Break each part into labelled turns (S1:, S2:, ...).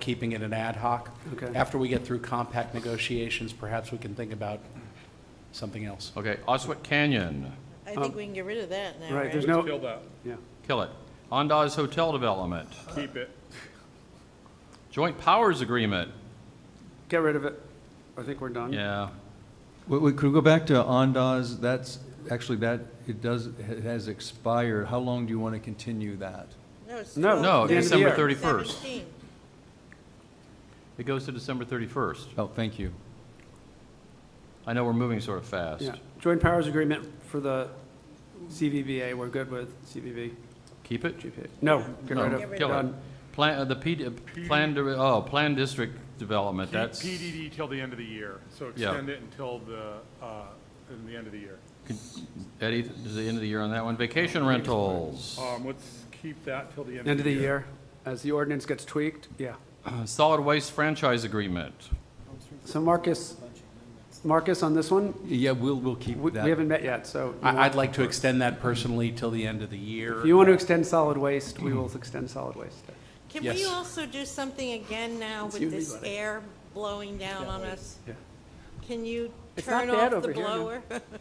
S1: keeping it an ad hoc.
S2: Okay.
S1: After we get through compact negotiations, perhaps we can think about something else.
S3: Okay, Oswett Canyon,
S4: I think we can get rid of that now,
S2: Um, Right,
S4: right?
S2: there's no,
S5: Kill that,
S2: yeah.
S3: kill it. Ondas Hotel Development,
S5: keep it.
S3: Joint Powers Agreement,
S2: Get rid of it. I think we're done.
S3: yeah.
S6: Wait, wait, could we go back to Ondas? That's, actually, that, it does, it has expired. How long do you want to continue that?
S4: No, it's
S2: No,
S3: No,
S2: the end of the
S3: December
S2: year.
S3: 31st.
S4: 17.
S3: It goes to December 31st.
S6: Oh, thank you.
S3: I know we're moving sort of fast.
S2: Yeah. Joint powers agreement for the CVBA, we're good with CVB,
S3: Keep it?
S2: GPA. No, get
S3: No,
S2: rid
S4: Get
S2: of,
S4: rid
S3: Kill it.
S2: done.
S3: Plan, uh, the P, uh, plan, dir- oh, Plan District Development,
S5: Keep
S3: that's,
S5: PDD till the end of the year, so
S3: Yeah.
S5: extend it until the, uh, in the end of the year.
S3: Eddie, is the end of the year on that one? Vacation rentals,
S5: Um, let's keep that till the
S2: End of the year, as the ordinance gets tweaked, yeah.
S3: Uh, solid waste franchise agreement.
S2: So Marcus, Marcus, on this one,
S6: Yeah, we'll, we'll keep
S2: we we
S6: that.
S2: haven't met yet, so you
S1: I,
S2: want-
S1: I'd like to extend that personally till the end of the year.
S2: if you want to extend solid waste, we will extend solid waste.
S4: Can
S1: Yes.
S4: we also do something again now with this air blowing down on us?
S2: Yeah.
S4: Can you
S2: It's not
S4: turn
S2: bad
S4: off
S2: over
S4: the
S2: here, no.
S4: blower?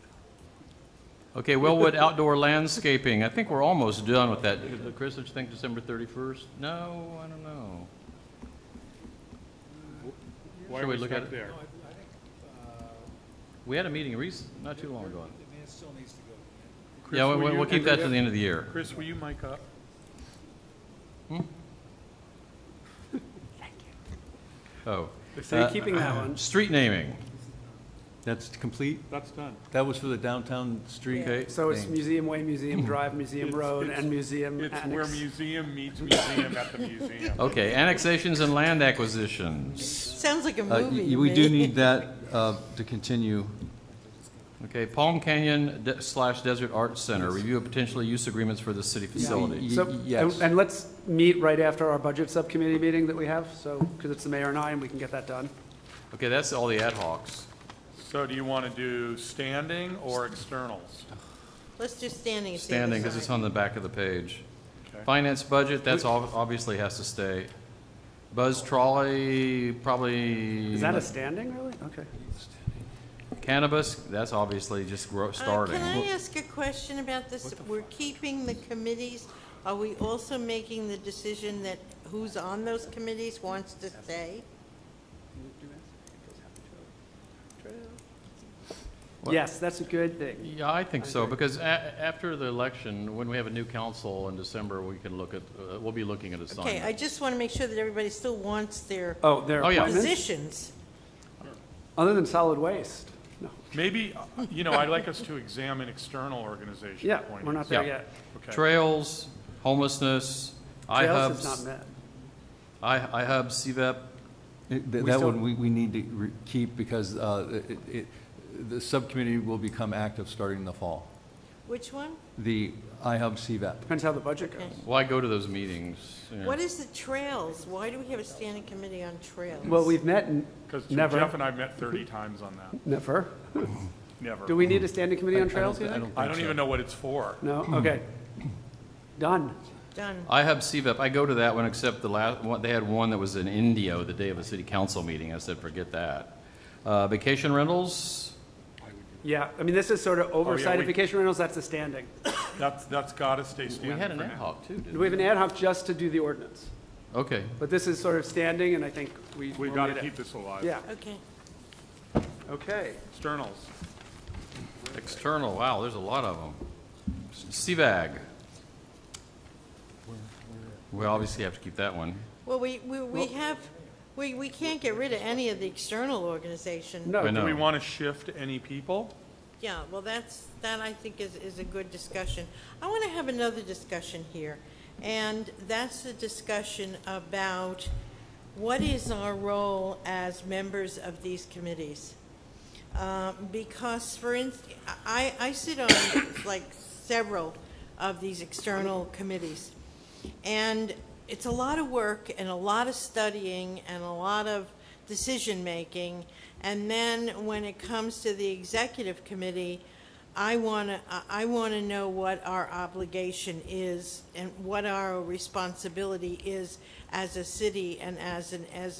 S3: Okay, Wellwood Outdoor Landscaping, I think we're almost done with that. Chris, did you think December 31st? No, I don't know.
S5: Why
S3: Should
S5: are
S3: we
S5: we
S3: look at
S5: stuck
S3: it?
S5: there?
S3: We had a meeting recent, not too long ago.
S7: The man still needs to go.
S5: Chris,
S3: Yeah, we-
S5: were
S3: we-
S5: you-
S3: we'll keep that to the end of the year.
S5: Chris, will you mic up?
S3: Oh,
S2: So you're keeping that one.
S3: street naming.
S6: That's complete?
S5: That's done.
S6: That was for the downtown street?
S3: Okay,
S2: So it's
S6: Thanks.
S2: Museum Way, Museum Drive, Museum
S5: It's-
S2: Road,
S5: it's-
S2: and Museum
S5: It's where
S2: Annex.
S5: museum meets museum at the museum.
S3: okay, annexations and land acquisitions.
S4: Sounds like a
S6: Uh,
S4: movie
S6: y-
S4: to
S6: We do
S4: me.
S6: need that uh, to continue.
S3: Okay, Palm Canyon de- slash Desert Arts Center, review of potential use agreements for the city facility.
S6: Y-
S2: So,
S6: y-
S2: and-
S6: yes.
S2: and let's meet right after our budget subcommittee meeting that we have, so, because it's the mayor and I, and we can get that done.
S3: Okay, that's all the ad hocs.
S5: So do you want to do standing or externals?
S4: Let's do standing. at the other
S3: Standing, because it's
S4: side.
S3: on the back of the page.
S5: Okay.
S3: Finance budget, that's all, obviously has to stay. Buzz trolley, probably.
S2: Is that a standing, really? Okay.
S3: Cannabis, that's obviously just grow,
S4: Uh,
S3: starting.
S4: Can I ask a question about this? We're keeping the committees. Are we also making the decision that who's on those committees wants to stay?
S2: Yes, that's a good thing.
S3: Yeah, I think so, because a- after the election, when we have a new council in December, we can look at, uh, we'll be looking at
S4: Okay, I
S3: assignment.
S4: just want to make sure that everybody still wants their
S2: Oh, there
S3: Oh,
S2: are
S3: yeah.
S2: appointments?
S4: positions.
S2: Other than solid waste? No.
S5: Maybe, you know, I'd like us to examine external organization
S2: Yeah,
S5: appointees.
S2: we're not there
S3: Yeah.
S2: yet.
S5: Okay.
S3: Trails, homelessness,
S2: Trails is not
S3: IHUBs,
S2: met.
S3: I- IHUB, CVEP,
S6: It- th-
S2: We
S6: That
S2: still-
S6: one, we, we need to re- keep because uh, it- it, it- the subcommittee will become active starting in the fall.
S4: Which one?
S6: The IHUB CVAP.
S2: Depends how the budget goes.
S3: why go to those meetings? Yeah.
S4: What is the trails? Why do we have a standing committee on trails?
S2: Well, we've met, n-
S5: Because
S2: Never.
S5: Jeff and I met 30 times on that,
S2: never.
S5: never.
S2: Do we need a standing committee on trails, you
S6: Mm. I
S2: think?
S6: don't
S5: I
S6: think
S5: don't
S6: so.
S5: even know what it's for.
S2: No, okay. Done.
S4: Done.
S3: IHUB, CVEP, E I go to that one, except the last, one they had one that was in Indio the day of a city council meeting. I said, forget that. Uh, Vacation rentals,
S2: Yeah, I mean, this is sort of oversight
S5: Oh, we-
S2: of vacation rentals, that's a standing.
S5: That's, that's got to stay
S3: we
S5: standing
S3: had an
S5: for
S3: ad
S5: now.
S3: hoc too, didn't
S2: We
S3: we?
S2: have an ad hoc just to do the ordinance,
S3: Okay,
S2: but this is sort of standing, and I think we.
S5: We've
S2: will
S5: got
S2: need
S5: to
S2: it.
S5: keep this alive.
S2: Yeah,
S4: Okay.
S2: okay.
S5: Externals.
S3: external, wow, there's a lot of them. CVAG. We obviously have to keep that one.
S4: Well, we, we, we have, we, we can't get rid of any of the external organization.
S2: No,
S3: I know.
S5: Do we want to shift any people?
S4: Yeah, well, that's, that I think is, is a good discussion. I want to have another discussion here, and that's the discussion about what is our role as members of these committees? Uh, Because, for instance, I, I sit on like several of these external committees, and it's a lot of work and a lot of studying and a lot of decision-making. And then when it comes to the executive committee, I want to, I want to know what our obligation is and what our responsibility is as a city and as an, as